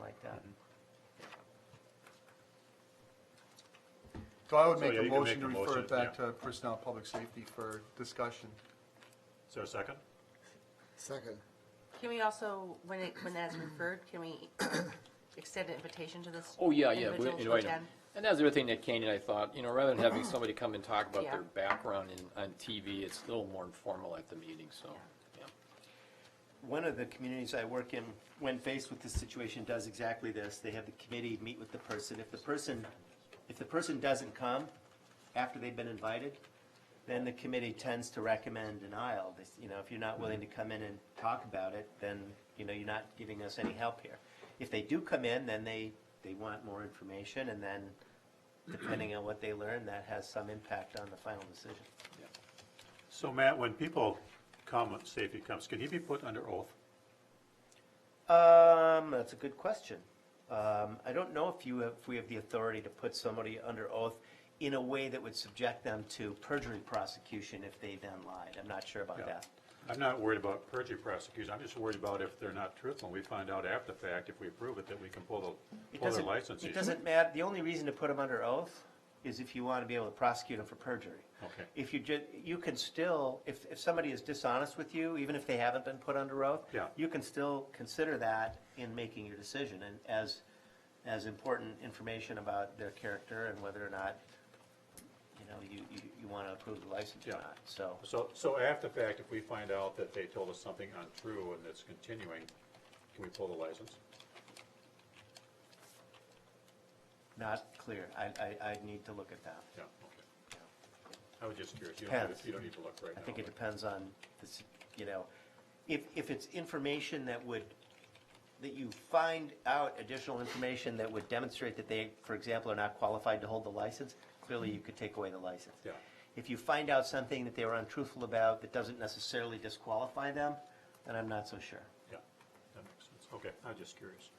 like that. So I would So, make yeah, a you can motion to make a refer it motion, back yeah. to Personnel Public Safety for discussion. Is there a second? Second. Can we also, when it, when that's referred, can we extend an invitation to this? Oh, yeah, yeah. we individual to invite 'em. attend? And that's the other thing that Kane and I thought, you know, rather than having somebody come and talk about their Yeah. background in, on TV, it's a little more informal at the meeting, so, yeah. One of the communities I work in, when faced with this situation, does exactly this. They have the committee meet with the person. If the person, if the person doesn't come after they've been invited, then the committee tends to recommend denial. This- You know, if you're not willing to come in and talk about it, then, you know, you're not giving us any help here. If they do come in, then they, they want more information, and then depending on what they learn, that has some impact on the final decision. So Matt, when people come, safety comes, can he be put under oath? Um, that's a good question. Um, I don't know if you have, if we have the authority to put somebody under oath in a way that would subject them to perjury prosecution if they then lied. I'm not sure about Yeah. that. I'm not worried about perjury prosecution, I'm just worried about if they're not truthful, and we find out after the fact, if we approve it, that we can pull the, It pull their doesn't, license. it doesn't matter, the only reason to put them under oath is if you want to be able to prosecute them for perjury. Okay. If you ju, you can still, if, if somebody is dishonest with you, even if they haven't been put under oath, Yeah. you can still consider that in making your decision and as, as important information about their character and whether or not, you know, you, you, you want to approve the license or Yeah. not, so. So, so after the fact, if we find out that they told us something untrue and it's continuing, can we pull the license? Not clear, I, I, I need to look at that. Yeah, okay. I was just curious, you don't, need to- you don't need to look right now. I think it but- depends on, this, you know, if, if it's information that would, that you find out additional information that would demonstrate that they, for example, are not qualified to hold the license, clearly you could take away the license. Yeah. If you find out something that they were untruthful about that doesn't necessarily disqualify them, then I'm not so sure. Yeah, that makes sense. Okay, I'm just curious.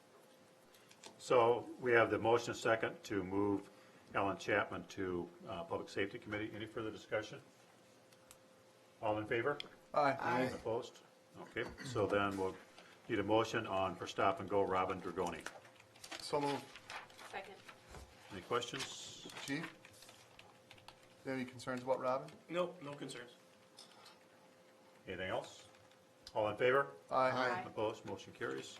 So we have the motion and second to move Alan Chapman to uh, Public Safety Committee. Any further discussion? All in favor? Aye. Opposed? Okay, so then we'll need a motion on for stop and go Robin Dragoni. So moved. Second. Any questions? Chief? Any concerns about Robin? No, no concerns. Anything else? All in favor? Aye. Opposed, motion carries.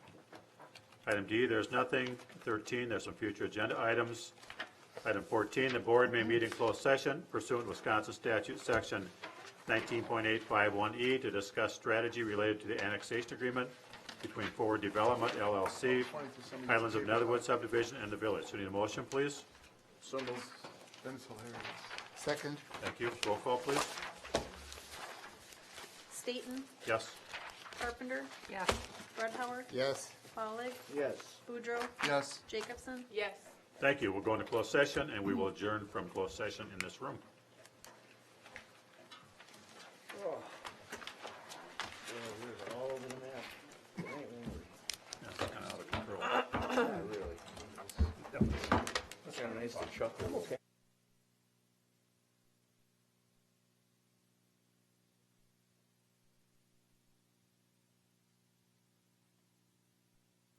Item D, there's nothing. 13, there's some future agenda items. Item 14, the board may meet in closed session pursuant to Wisconsin statute, section 19.851E, E, to discuss strategy related to the annexation agreement between Forward Development LLC, Highlands of Netherwood subdivision, and the village. So need a motion, please? So moved. That is hilarious. Second. Thank you. Roll call, please. Staton, Yes? Carpenter, Yes. Red Howard, Yes. Follig, Yes. Boudreaux, Yes. Jacobson. Yes. Thank you. We'll go into closed session, and we will adjourn from closed session in this room. Oh, all over the map. That's kind of out of control. That's kind of nice to chuckle. Okay.